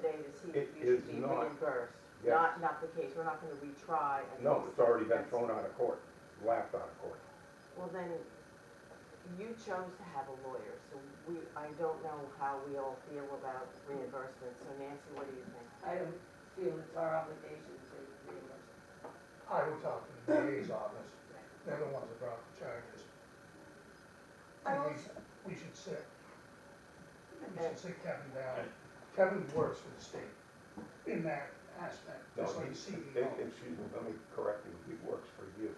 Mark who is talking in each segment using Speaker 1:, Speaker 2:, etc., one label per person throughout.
Speaker 1: to,
Speaker 2: It
Speaker 1: you
Speaker 2: is
Speaker 1: should be
Speaker 2: not.
Speaker 1: reimbursed.
Speaker 2: Yes.
Speaker 1: Not, not the case, we're not gonna retry. and-
Speaker 2: No, it's already been
Speaker 1: That's-
Speaker 2: thrown out of court, laughed out of court.
Speaker 1: Well, then, you chose to have a lawyer, so we, I don't know how we all feel about reimbursement, so Nancy, what do you think?
Speaker 3: I don't feel it's our obligation to reimburse.
Speaker 4: I would talk to the DA's office, they're the ones that brought the charges.
Speaker 3: I
Speaker 4: And we
Speaker 3: was-
Speaker 4: should- We should sit, we should sit Kevin down. Kevin works for the state in that aspect,
Speaker 2: No,
Speaker 4: just like E
Speaker 2: he-
Speaker 4: CEO.
Speaker 2: eh, Excuse me, let me correct you, he works for you,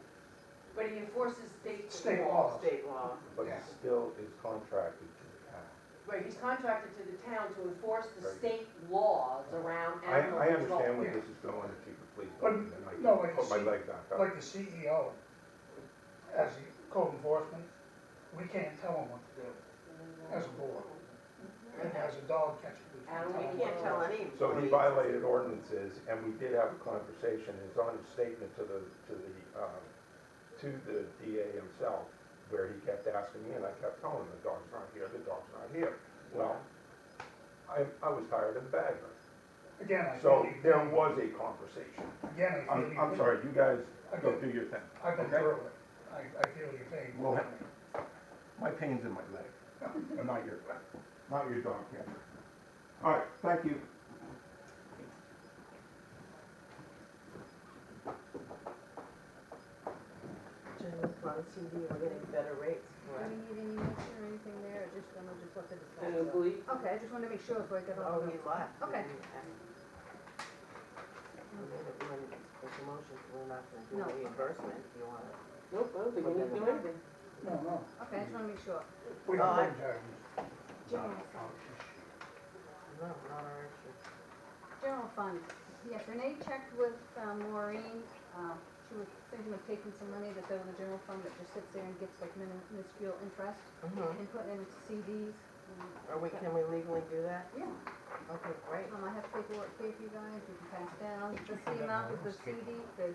Speaker 3: But he enforces state.
Speaker 4: State laws.
Speaker 1: State law.
Speaker 2: but he
Speaker 4: Yeah.
Speaker 2: still is contracted to the town.
Speaker 3: Right, he's contracted to the town to enforce the
Speaker 2: Right.
Speaker 3: state laws around
Speaker 2: I,
Speaker 3: animal
Speaker 2: I
Speaker 3: control.
Speaker 2: understand where
Speaker 4: Yeah.
Speaker 2: this is going, if you could please,
Speaker 4: But,
Speaker 2: open, and I
Speaker 4: no,
Speaker 2: can
Speaker 4: like
Speaker 2: put my
Speaker 4: she-
Speaker 2: leg back up.
Speaker 4: Like the CEO, as the code enforcement, we can't tell them what to do as a board. And as a dog catcher, we
Speaker 3: And
Speaker 4: can't
Speaker 3: we
Speaker 4: tell them.
Speaker 1: You can't tell any.
Speaker 2: So he
Speaker 1: employee.
Speaker 2: violated ordinances, and we did have a conversation, it's on his statement to the, to the, um, to the DA himself, where he kept asking me, and I kept telling him, the dog's not here, the dog's not here. Well, I, I was tired of the badger,
Speaker 4: Again, I
Speaker 2: so
Speaker 4: feel you-
Speaker 2: there was a conversation.
Speaker 4: Again, I feel
Speaker 2: I'm,
Speaker 4: you.
Speaker 2: I'm sorry, you guys go
Speaker 4: Okay.
Speaker 2: do your thing.
Speaker 4: I've been
Speaker 2: okay?
Speaker 4: through it, I, I feel your pain.
Speaker 2: Well, My pain's in my leg, not your, not your dog, yeah. All right, thank you.
Speaker 1: General fund, CD, we're getting better rates for
Speaker 5: Do
Speaker 1: it.
Speaker 5: we need any motion or anything there, or just, I'm gonna just let the
Speaker 3: I don't
Speaker 5: discussion?
Speaker 3: believe,
Speaker 5: Okay, I just wanna make sure before I get
Speaker 1: Oh,
Speaker 5: on.
Speaker 1: he left.
Speaker 5: Okay.
Speaker 1: It's a motion, we're not
Speaker 5: No.
Speaker 1: gonna do reimbursement if you want it.
Speaker 3: nope, I don't think we need to do anything.
Speaker 4: No, no,
Speaker 5: Okay, I just wanna make sure.
Speaker 4: we don't
Speaker 1: Uh,
Speaker 4: bring charges.
Speaker 5: General fund,
Speaker 1: No, not our issue.
Speaker 5: general fund, yes, Renee checked with uh, Maureen, um, she was thinking of taking some money that's out of the general fund that just sits there and gets like min- minuscule interest
Speaker 1: Mhm.
Speaker 5: and putting it into CDs. and-
Speaker 1: Are we, can we legally do that?
Speaker 5: Yeah,
Speaker 1: Okay, great.
Speaker 5: um, I have paperwork here for you guys, you can pass down, just the amount of the CD, the,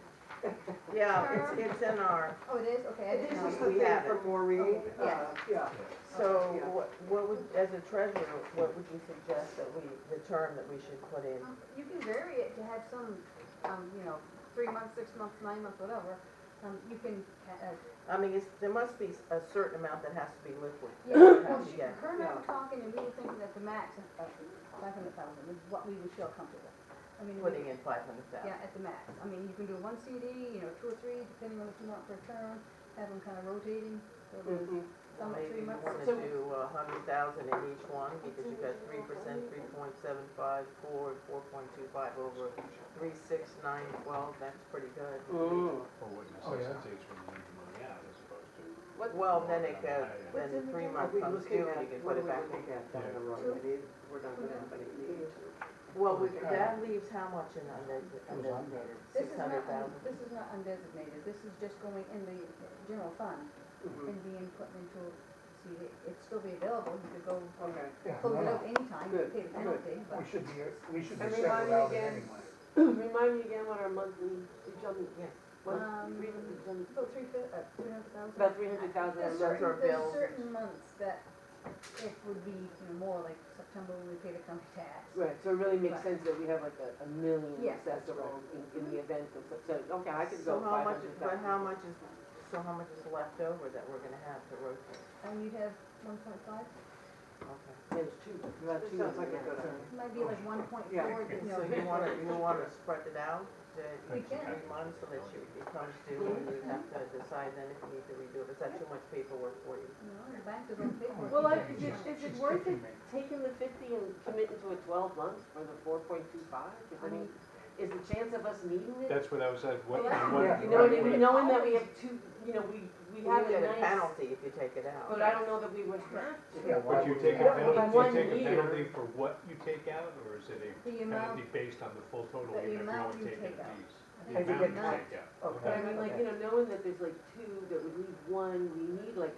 Speaker 1: Yeah, it's, it's in our, um,
Speaker 5: oh, it is, okay, I didn't know.
Speaker 1: This is the thing for
Speaker 6: Maureen.
Speaker 5: Yeah.
Speaker 6: Yeah.
Speaker 1: so what, what would, as a treasurer, what would you suggest that we, the term that we should put in?
Speaker 5: Um, You can vary it to have some, um, you know, three months, six months, nine months, whatever. Um, you can, uh,
Speaker 1: I mean, it's, there must be a certain amount that has to be liquid.
Speaker 5: yeah,
Speaker 1: that
Speaker 5: well,
Speaker 1: has to
Speaker 5: she-
Speaker 1: get-
Speaker 5: her and I were talking and we were thinking that the max is five hundred thousand is what we would feel comfortable. I mean, we-
Speaker 1: Putting in five hundred
Speaker 5: yeah,
Speaker 1: thousand.
Speaker 5: at the max. I mean, you can do one CD, you know, two or three, depending on what you want for a term, have them kind of rotating, so there's
Speaker 1: Mm-hmm.
Speaker 5: some at
Speaker 1: Maybe
Speaker 5: three
Speaker 1: you
Speaker 5: months.
Speaker 1: wanna
Speaker 5: So-
Speaker 1: do a hundred thousand in each one, because you've got three percent, three point seven five, four, and four point two five over three, six, nine, twelve, that's pretty good.
Speaker 6: Mm-hmm.
Speaker 7: Or what
Speaker 4: Oh, yeah.
Speaker 7: necessitates from the money out as opposed to.
Speaker 6: What-
Speaker 1: Well, then it
Speaker 7: Yeah.
Speaker 1: goes, then the three months comes due, and you can put it back in.
Speaker 6: down the road? We need, we're not gonna have any need to.
Speaker 1: Well, we- that leaves how much in undesignated? Six
Speaker 5: This is not,
Speaker 1: hundred
Speaker 5: un-
Speaker 1: thousand?
Speaker 5: this is not undesignated. This is just going in the general fund
Speaker 6: Mm-hmm.
Speaker 5: and
Speaker 1: Mm.
Speaker 5: being put into CD. It'd still be available. You could go
Speaker 6: Okay.
Speaker 4: Yeah,
Speaker 5: Close it
Speaker 4: no,
Speaker 5: up anytime, you
Speaker 6: Good,
Speaker 5: pay the penalty,
Speaker 4: no,
Speaker 5: but
Speaker 4: we should be, we should be
Speaker 6: And
Speaker 4: set
Speaker 6: remind me
Speaker 4: without it
Speaker 6: again.
Speaker 4: anyway.
Speaker 6: Remind me again what our monthly, did you,
Speaker 1: Yes.
Speaker 6: what,
Speaker 5: Um,
Speaker 6: three hundred, did you-
Speaker 5: about three fif, uh, three hundred thousand.
Speaker 6: about three hundred thousand a
Speaker 5: There's
Speaker 1: That's
Speaker 6: month?
Speaker 1: our
Speaker 5: certain, there's
Speaker 1: bill.
Speaker 5: certain months that it would be, you know, more like September when we pay the county tax.
Speaker 6: Right, so it really makes
Speaker 5: Right.
Speaker 6: sense that we have like a, a million
Speaker 5: Yeah.
Speaker 6: accessible in, in the event of, such- so, okay, I could
Speaker 1: So
Speaker 6: go
Speaker 1: how
Speaker 6: five
Speaker 1: much, but
Speaker 6: hundred thousand.
Speaker 1: how much is, so how much is left over that we're gonna have to rotate?
Speaker 5: And you'd have one point five,
Speaker 1: Okay.
Speaker 6: There's two, about
Speaker 1: This
Speaker 6: two
Speaker 1: sounds
Speaker 6: million
Speaker 1: like a
Speaker 6: there.
Speaker 1: good idea.
Speaker 5: might be like one point
Speaker 6: Oh, Yeah.
Speaker 5: four, you know.
Speaker 1: So you wanna, you wanna spread it out to
Speaker 5: We
Speaker 1: each
Speaker 5: can. Mm-hmm.
Speaker 1: three months so that you, it comes due and you have to decide then if you need to redo it. Is that too much paperwork for you?
Speaker 5: You know, the bank doesn't pay for it.
Speaker 6: Well, I,
Speaker 4: Yeah,
Speaker 6: is it,
Speaker 4: yeah.
Speaker 6: is it
Speaker 4: She's
Speaker 6: worth it
Speaker 4: kicking me.
Speaker 6: taking the fifty and committing to a twelve months for the four point two five? I
Speaker 5: I
Speaker 6: mean, is the chance of us needing it?
Speaker 7: That's what I was at,
Speaker 5: Well,
Speaker 7: what,
Speaker 5: that's-
Speaker 7: what.
Speaker 6: You know what I
Speaker 7: what-
Speaker 6: mean, knowing that we have two, you know, we, we have
Speaker 1: You
Speaker 6: a
Speaker 1: get a
Speaker 6: nice,
Speaker 1: penalty if you take it out.
Speaker 6: but I don't know that we would have to.
Speaker 4: Yeah,
Speaker 7: But you take a
Speaker 6: Yeah, one
Speaker 7: penalty, you take a
Speaker 6: year.
Speaker 7: penalty for what you take out, or is it a
Speaker 5: The amount,
Speaker 7: penalty based on the full total,
Speaker 5: the
Speaker 7: even if you
Speaker 5: amount you
Speaker 7: only take
Speaker 5: take
Speaker 7: in
Speaker 5: out. I
Speaker 7: fees?
Speaker 5: think
Speaker 7: The amount you
Speaker 5: the amount.
Speaker 7: take out.
Speaker 6: But I mean, like,
Speaker 1: Okay.
Speaker 6: you know, knowing that there's like two that would need one, we need like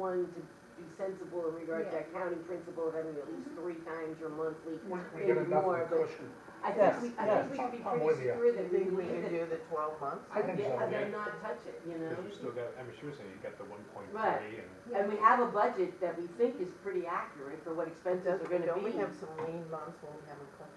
Speaker 6: one to be sensible in regard to
Speaker 5: Yeah.
Speaker 6: accounting principle of having at least three times your monthly.
Speaker 4: We, we
Speaker 6: maybe
Speaker 4: get enough of
Speaker 6: more,
Speaker 4: a
Speaker 6: but
Speaker 4: cushion.
Speaker 6: I
Speaker 1: Yes,
Speaker 6: think we, I
Speaker 4: yes.
Speaker 6: think we can be
Speaker 4: I'm with
Speaker 6: pretty
Speaker 4: you.
Speaker 6: sure
Speaker 1: You
Speaker 6: that we
Speaker 1: think we
Speaker 6: need
Speaker 1: can
Speaker 6: it.
Speaker 1: do the twelve months?
Speaker 4: I think
Speaker 6: Yeah,
Speaker 4: so.
Speaker 6: and then not touch it, you know?
Speaker 7: Cause you still got, I mean, she was saying you got the one point
Speaker 6: Right.
Speaker 7: three and.
Speaker 5: Yeah.
Speaker 6: And we have a budget that we think is pretty accurate for what
Speaker 1: And
Speaker 6: expenses
Speaker 1: does,
Speaker 6: are gonna
Speaker 1: don't
Speaker 6: be.
Speaker 1: we have some lean months when we haven't collected